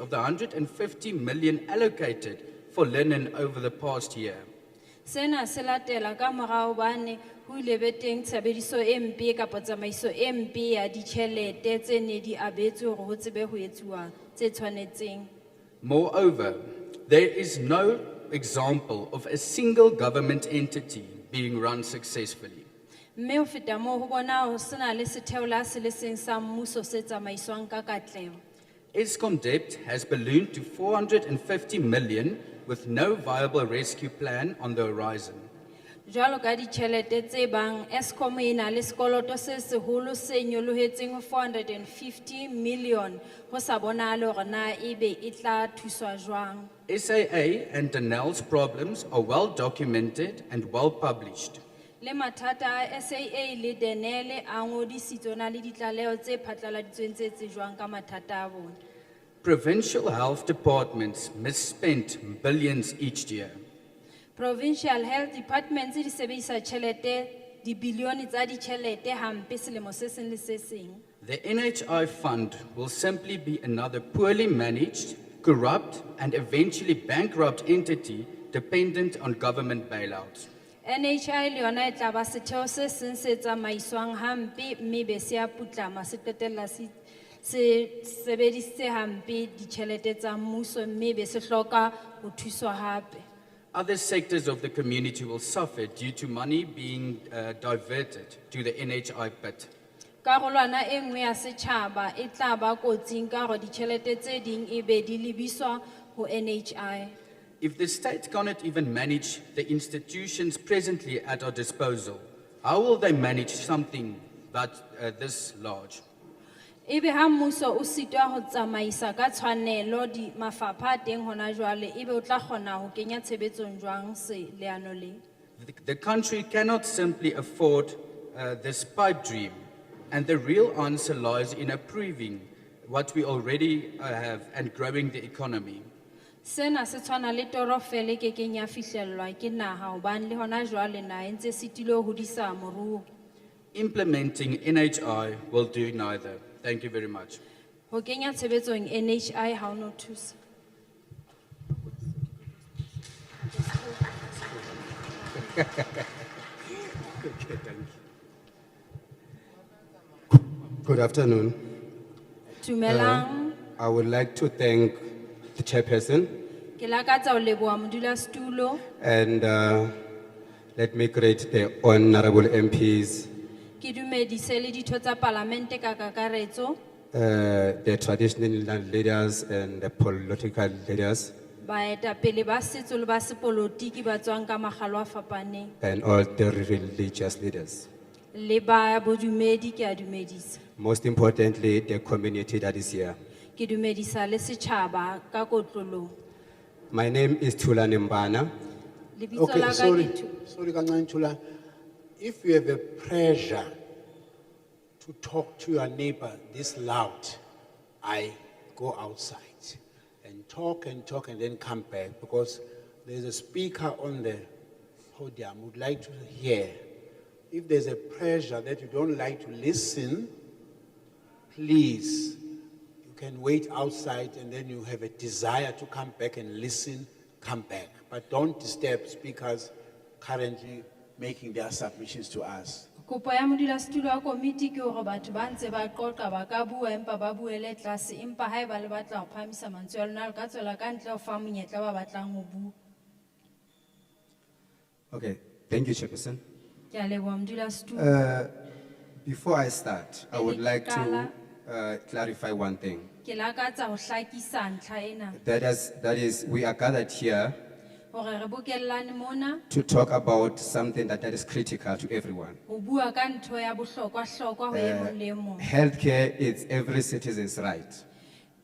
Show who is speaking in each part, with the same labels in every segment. Speaker 1: of the 150 million allocated for linen over the past year.
Speaker 2: Sena se latela ka morao bane ho ile be teng tshebediso e mpe kapa tsamaiso e mpe ya ditjhelete tse ne di abetswe hore ho tsebe ho etsuwa tse tshwanetseng.
Speaker 1: Moreover, there is no example of a single government entity being run successfully.
Speaker 2: Mme ho feta moo ho bona ho sena le setheo la se le seng sa mmuso se tsamaiswang ka katleho.
Speaker 1: ESCOM debt has ballooned to 450 million with no viable rescue plan on the horizon.
Speaker 2: Jwalo ka ditjhelete tse bang Eskom e na le sekoloto se seholo se nyolohetseng ho 450 million ho sa bonahale hore na ebe e tla thuswa jwang.
Speaker 1: SAA and Danel's problems are well documented and well published.
Speaker 2: Le matata a SAA le Denele a ngodisitswe na le ditlaleho tse phatlaladitsweng tse tsejwang ka mathata a bona.
Speaker 1: Provincial health departments misspent billions each year.
Speaker 2: Provincial Health Departments di sebedisa tjhelete, dibilione tsa ditjhelete hampe selemo se seng le se seng.
Speaker 1: The NHI fund will simply be another poorly managed, corrupt, and eventually bankrupt entity dependent on government bailouts.
Speaker 2: NHI le yona e tla ba setheo se seng se tsamaiswang hampe mme be se a putlama se qetella se se sebedisitse hampe ditjhelete tsa mmuso mme be se hloka ho thuswa hape.
Speaker 1: Other sectors of the community will suffer due to money being uh, diverted to the NHI pit.
Speaker 2: Karolwana e nngwe ya setjhaba e tla ba kotsing ka hore ditjhelete tse ding e be di lebiswa ho NHI.
Speaker 1: If the state cannot even manage the institutions presently at our disposal, how will they manage something that, uh, this large?
Speaker 2: Ebe E ha mmuso o sitwa ho tsamaisa ka tshwanelo di mafapha a teng hona jwale ebe o tla kgona ho kenya tshebetsong jwang se leano le.
Speaker 1: The, the country cannot simply afford uh, this pipe dream, and the real answer lies in improving what we already uh, have and growing the economy.
Speaker 2: Sena se tshwana le toro fela e kekeng ya fihlellwa ke naha hobane le hona jwale naha e ntse sitile ho hodisa moruo.
Speaker 1: Implementing NHI will do neither. Thank you very much.
Speaker 2: Ho kenya tshebetsong NHI ha o no thusa.
Speaker 3: Good afternoon.
Speaker 2: Dumelang.
Speaker 4: Eh.
Speaker 3: I would like to thank the chairperson
Speaker 2: Ke lakatsa ho leboha modulasetulo
Speaker 3: and uh, let me greet the honorable MPs,
Speaker 2: ke dumedise le ditho tsa palamente ka kakaretso,
Speaker 3: uh, the traditional leaders and the political leaders
Speaker 2: baetapele ba setso le ba sepolotiki ba tswang ka makgalo a fapaneng
Speaker 3: and all the religious leaders.
Speaker 2: le ba bodumedi ke a dumedisa.
Speaker 3: Most importantly, the community that is here.
Speaker 2: Ke dumedisa le setjhaba ka kotlolong.
Speaker 3: My name is Tulane Mbana.
Speaker 2: Lebitso
Speaker 5: Okay,
Speaker 2: la ka
Speaker 5: sorry,
Speaker 2: ke Tu-
Speaker 5: sorry, Kangan Chula. If you have a pressure to talk to your neighbor this loud, I go outside and talk and talk and then come back because there's a speaker on the podium would like to hear. If there's a pressure that you don't like to listen, please, you can wait outside and then you have a desire to come back and listen, come back. But don't disturb speakers currently making their submissions to us.
Speaker 2: Kopo ya modulasetulo wa komiti ke hore batho ba ntse ba qoqa ba ka bua empa ba buele tlase empa haeba le batla ho phahamisa mantswe ya lona le ka tswela ka ntle ho fa monyetla ba batlang ho bua.
Speaker 4: Okay, thank you, Chairperson.
Speaker 2: Ke a leboha modulasetulo.
Speaker 5: Eh.
Speaker 4: Uh, before I start, I would like to
Speaker 2: Kala.
Speaker 4: uh, clarify one thing.
Speaker 2: Ke lakatsa ho hlakisa ntlha ena
Speaker 4: That is, that is, we are gathered here
Speaker 2: hore re bokellane mona
Speaker 4: to talk about something that, that is critical to everyone.
Speaker 2: ho bua ka ntho ya bohlokwa-hlokwa ho e mong le
Speaker 4: Eh.
Speaker 2: e mong.
Speaker 4: Healthcare is every citizen's right.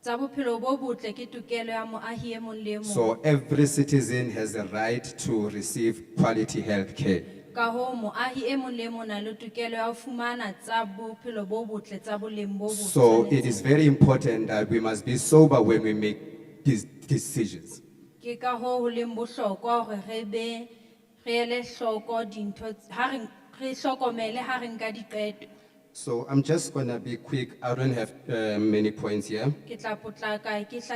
Speaker 2: Tsa bophelo bo botle ke tokelo ya moahi e mong le e mong.
Speaker 4: So every citizen has the right to receive quality healthcare.
Speaker 2: Ka hoo moahi e mong le e mong na le tokelo ya ho fumana tsa bophelo bo botle tsa boleng bo bo
Speaker 4: So it
Speaker 2: tshwanetseng.
Speaker 4: is very important that we must be sober when we make these decisions.
Speaker 2: Ke ka hoo ho leng bohlokwa hore re be, re ele hloko dintho, tse- ha re, re hlokomele ha re nka diqeto.
Speaker 4: So I'm just gonna be quick. I don't have uh, many points here.
Speaker 2: Ke tla potlaka, ke hla